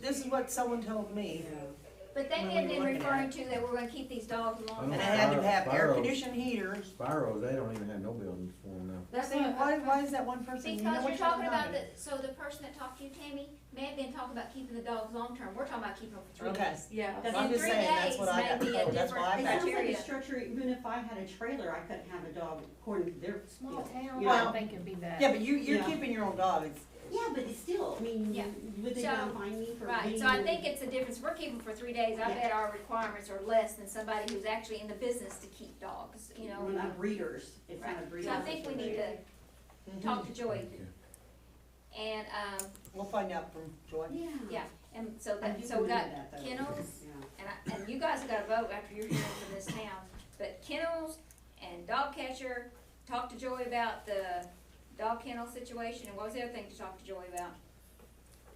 This is what someone told me, But they What had were you been looking at? referring to that we're gonna keep these dogs and alone. I Oh, had to fire- have air fire. conditioned heaters. Spiro, they don't even have no buildings for them now. That's See, what- why, why is that one person? you know Because what you're talking about the, it. so the person that talked to you, Tammy, may have been talking about keeping the dogs long-term, we're talking about keeping them for three Okay. days. Yeah. Because I'm in just three saying, that's days what I may got be a told, that's different why I It sounds like criteria. a structure, even if I had a trailer, I couldn't have a dog according to their. Small town, I Well- don't think it'd be that. Yeah, but you, you're Yeah. keeping your own dog, it's, Yeah, but it's still, I mean, Yeah. would they So, not find me for Right, being? so I think it's a difference, we're keeping for three days, I Yeah. bet our requirements are less than somebody who's actually in the business to keep dogs, you know? We're not breeders, it's not a Right. breeder. So I think we need to talk to Joy, Okay. and, um, we'll find out from Joy. Yeah. yeah, and so I that, do so we believe got that, though. kennels, Yeah. and I, and you guys have got to vote after you're hearing from this town, but kennels and dog catcher, talk to Joey about the dog kennel situation, and what was the other thing to talk to Joey about?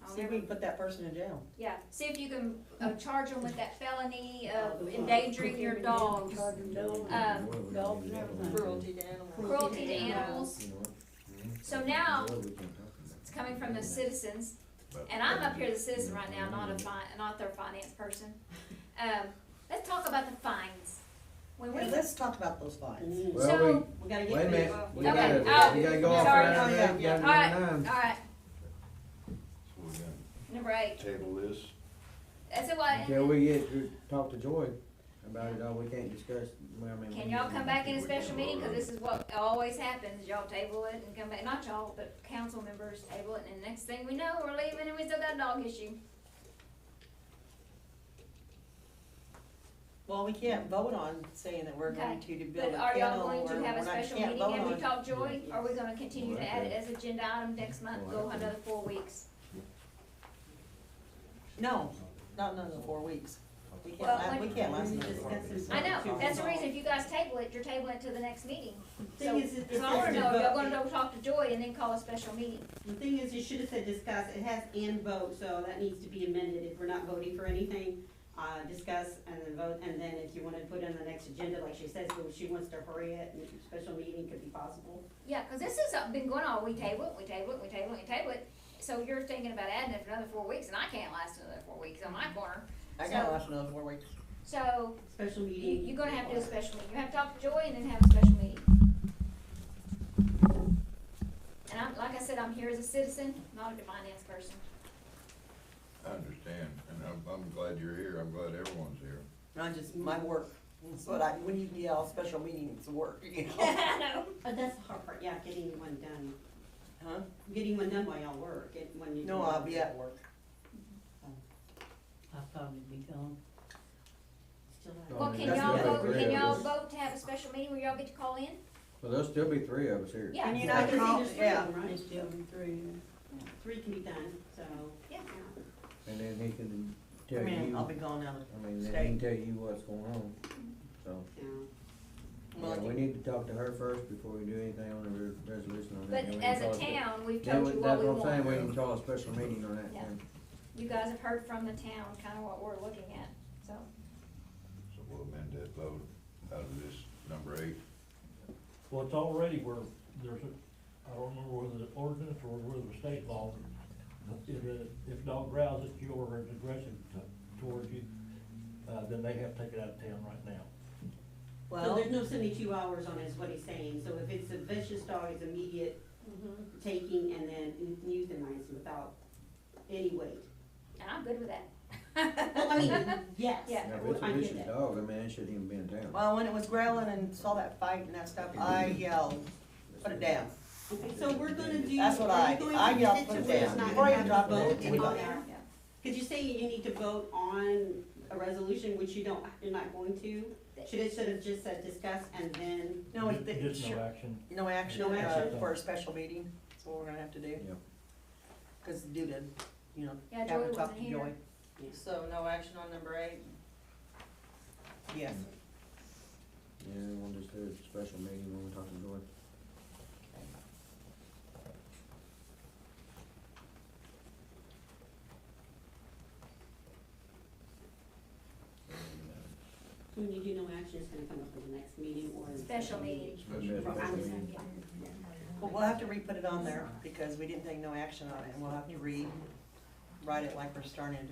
I'll See if we Hmm. never- can put that person in jail. Yeah, see if you can, uh, charge them with that felony Uh, of the- endangering your dogs, No, Um, no, we no, can't do that. Cruelty to animals. cruelty to animals, You know what? Mhm. So now, No, we can't talk about it's coming from the that. citizens, and I'm up here as a citizen right now, not a fi- not their finance person. Um, let's talk about the fines. When Well, we, let's talk about those fines. Mm. Well, so- we- We gotta wait a get rid minute, of. we Okay, gotta, oh, we gotta go off sorry. around Oh, yeah, eight, yeah. gotta All do nine. alright, So we're gonna number eight, table this. that's a what, Until we get to talk to Joy about it, all we can't discuss, well, I mean. we Can y'all need- come back in a We can special meeting, cause vote on it. this is what always happens, y'all table it and come back, not y'all, but council members table it, and the next thing we know, we're leaving and we still got a dog issue. Well, we can't vote on saying that we're going to to build But a are kennel y'all or going we're to have a not, special can't meeting vote and we on. talk Joy, Yeah. or are we gonna continue to add it as agenda item next month, go Well, I- another four weeks? No, not another four weeks. We can't, Well, la- we like- can't last We another discuss four weeks. this. I know, that's the reason, if you guys table it, you're tabling it to the next meeting. So, Thing is, it- it so I wanna says know, if y'all vote. gonna go talk to Joy and then call a special meeting, The thing is, it should have said discuss, it has and vote, so that needs to be amended, if we're not voting for anything, uh, discuss and then vote, and then if you wanna put on the next agenda, like she says, well, she wants to hurry it, and a special meeting could be possible. yeah, cause this has been going on, we table it, we table it, we table it, we table it. So you're thinking about adding it for another four weeks, and I can't last another four weeks on my corner, I gotta last another four weeks. so Special you, meeting. you're gonna have to do a special meeting, you have to talk to Joy and then have a special meeting. And I'm, like I said, I'm here as a citizen, not a finance person. I understand, and I'm, I'm glad you're here, I'm glad everyone's here. I just, my work, that's what I, when you yell special meeting, it's work, you know? I know. But Oh, that's the hard part, yeah, getting one done, Huh? getting one done while y'all work, get one. you- No, I'll be at work. I'll probably be gone. Still have- Well, I mean, can that's y'all what vote, they can did. y'all vote to have a special meeting where y'all get to call in? Well, there'll still be three of us here. Yeah. And you I know, can see call- there's three yeah. of them, right? It's still in three. Three can be done, so. Yeah. And then he can I tell you, mean, I'll be I gone out of mean, then he Stay. can tell you what's going on, so. Yeah. Yeah, we Well, need to talk to her first before we do anything on the re- resolution on that. But and we can as call a it- town, we've Then told we- you what that's we what I'm saying, we want. can call a special meeting on that Yeah. then. You guys have heard from the town kinda what we're looking at, so. So we'll amend that vote out of this number eight. Well, it's already where there's a, I don't remember whether it's ordinance or whether it's state law, but if, a- if dog growls at you or is aggressive to- towards you, uh, then they have to take it out of town right now. So well, there's no seventy-two hours on it, is what he's saying, so if it's a vicious dog, it's immediate Mm-hmm. taking and then euthanized without any weight. And I'm good with that. Well, I mean, yes, Yeah. Now, if it's a I get vicious that. dog, I mean, it shouldn't even be in town. well, when it was growling and saw that fight and that stuff, I yelled, put it down. Okay, so we're gonna do. That's what are I- you going I to got sit to put where it's down. not Before you gonna drop it, vote we on got- there? Yeah. Cause you say you need to vote on a resolution, which you don't, you're not going to, should it, should have just said discuss and then, No, it, it, Just should- no action. no action, No uh, action. for a special meeting, that's what we're gonna have to do. Yeah. Cause due to, you know, Yeah, having Joy to talk wasn't to here. Joy, So no action on number eight? yes. Yeah, we'll just do a special meeting when we talk to Joy. when you do no action, it's gonna come up in the next meeting or. in the Special meeting. Special Right. meeting. Well, we'll have to re-put it on there, because we didn't take no action on it, and we'll have to read write it like we're starting to